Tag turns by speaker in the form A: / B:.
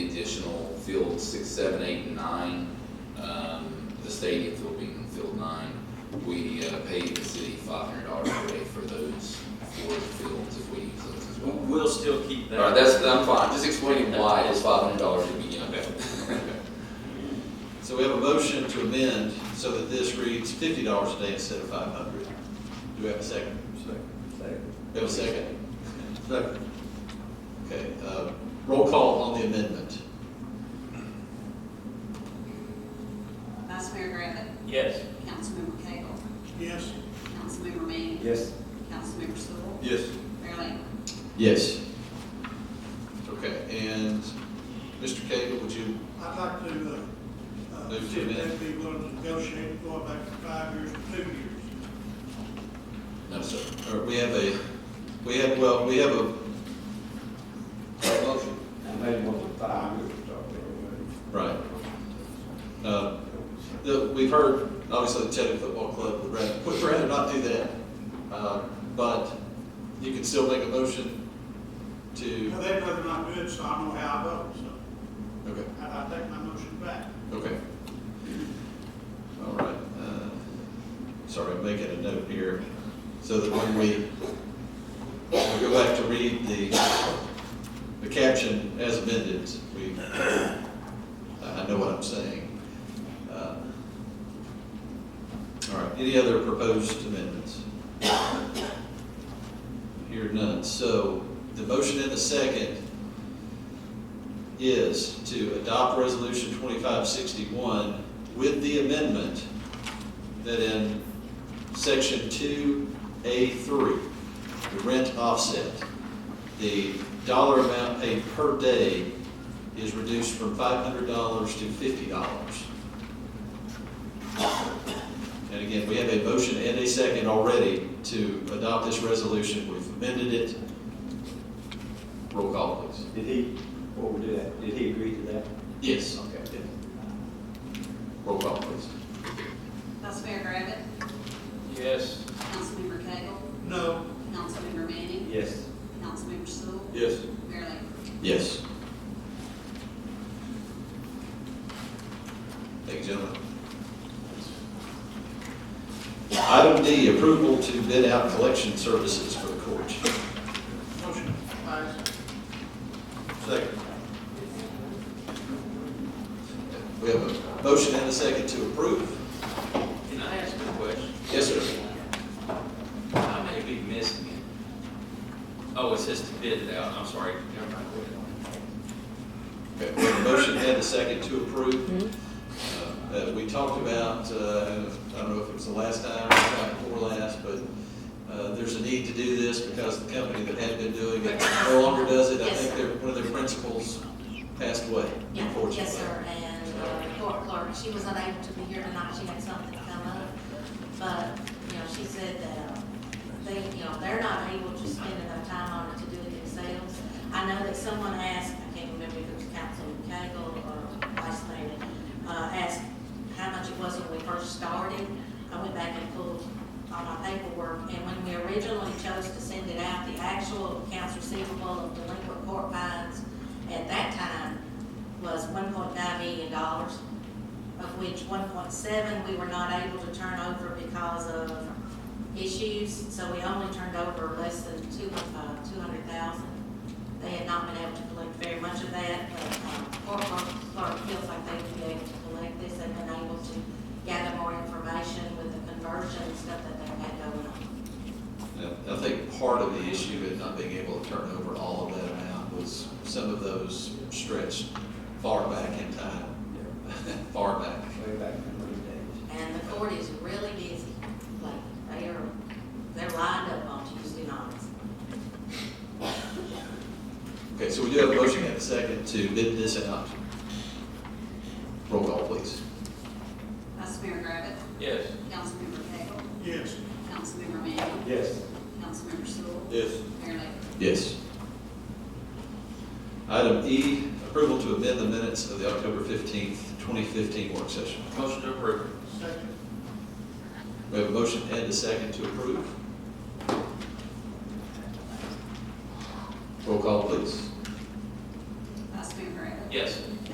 A: additional field six, seven, eight, and nine, um, the stadium field being field nine. We uh, pay the city five hundred dollars per day for those four fields if we use those as
B: We'll,
A: well.
B: we'll still keep
A: All right,
B: that.
A: that's, I'm fine, just explaining why it's five hundred dollars to begin with.
C: So we have a motion to amend so that this reads fifty dollars a day instead of five hundred. Do we have a second? We have a second? Second. Okay, uh, roll call on the amendment.
D: Vice Mayor Griffin.
B: Yes.
D: Councilmember Cagle.
E: Yes.
D: Councilmember Manning.
F: Yes.
D: Councilmember Stoll.
C: Yes.
D: Mayor Lambert.
C: Yes. Okay, and Mr. Cagle, would you,
E: I'd like to, uh, uh,
C: Move to
E: see if
C: amend.
E: they'd be willing to negotiate going back to five years to two years.
A: No, sir.
C: or we have a, we have, well, we have a. Motion.
F: I made a motion five years ago.
C: Right. Uh, The, we've heard, obviously, the Teddy Football Club would rather, would rather not do that. Uh, But you can still make a motion to,
E: Now, they'd rather not do it, so I know how I vote, so
C: okay,
E: I, I take my motion back.
C: okay. All right. uh, Sorry, I'm making a note here, so that when we, when we go back to read the, the caption as amended, we, I I know what I'm saying. Uh, All right, any other proposed amendments? Here none, so the motion and the second is to adopt resolution twenty-five sixty-one with the amendment that in section two A three, the rent offset, the dollar amount paid per day is reduced from five hundred dollars to fifty dollars. And again, we have a motion and a second already to adopt this resolution. We've amended it. Roll call, please.
F: Did he, what we do that, did he agree to that?
C: Yes.
F: Okay.
C: Roll call, please.
D: Vice Mayor Griffin.
B: Yes.
D: Councilmember Cagle.
E: No,
D: Councilmember Manning.
F: Yes.
D: Councilmember Stoll.
C: Yes.
D: Mayor Lambert.
C: Yes. Thank you, gentlemen. Item D, approval to bid out collection services for the court.
E: motion passed.
C: Second. We have a motion and a second to approve.
B: Can I ask a question?
C: Yes, sir.
B: I may be missing it. Oh, it says to bid it out, I'm sorry. Never mind. Go ahead.
C: Okay, we have a motion and a second to approve.
G: Mm-hmm.
C: Uh, uh, we talked about, uh, I don't know if it was the last time or the time before last, but, uh, there's a need to do this because the company that had been doing it no longer does it. I
G: Yes,
C: think
G: sir.
C: their, one of their principals passed away,
G: Yeah,
C: unfortunately.
G: Yes, sir, and uh, court clerk, she was unable to be here tonight, she had something come up. But, you know, she said that uh, they, you know, they're not able to spend enough time on it to do it themselves. I know that someone asked, I can't remember if it was Councilman Cagle or Vice Mayor, uh, asked how much it was when we first started. I went back and pulled all my paperwork, and when we originally chose to send it out, the actual accounts receivable of delinquent court fines at that time was one point nine million dollars, of which one point seven we were not able to turn over because of issues, so we only turned over less than two, uh, two hundred thousand. They had not been able to collect very much of that, but, uh, court clerk- clerk feels like they would be able to collect this, they've been able to gather more information with the conversion and stuff that they've had going on.
C: And I think part of the issue in not being able to turn over all of that amount was some of those stretched far back in time,
F: Yeah.
C: far back.
F: Way back in the days.
G: And the court is really busy, like, they are, they're lined up on Tuesday nights.
C: Okay, so we do have a motion and a second to bid this out. Roll call, please.
D: Vice Mayor Griffin.
B: Yes.
D: Councilmember Cagle.
E: yes.
D: Councilmember Manning.
F: Yes.
D: Councilmember Stoll.
C: Yes.
D: Mayor Lambert.
C: Yes. Item E, approval to amend the minutes of the October fifteenth, twenty fifteen work session.
B: Motion to approve.
E: Second,
C: We have a motion and a second to approve. Roll call, please.
D: Vice Mayor Griffin.
B: Yes.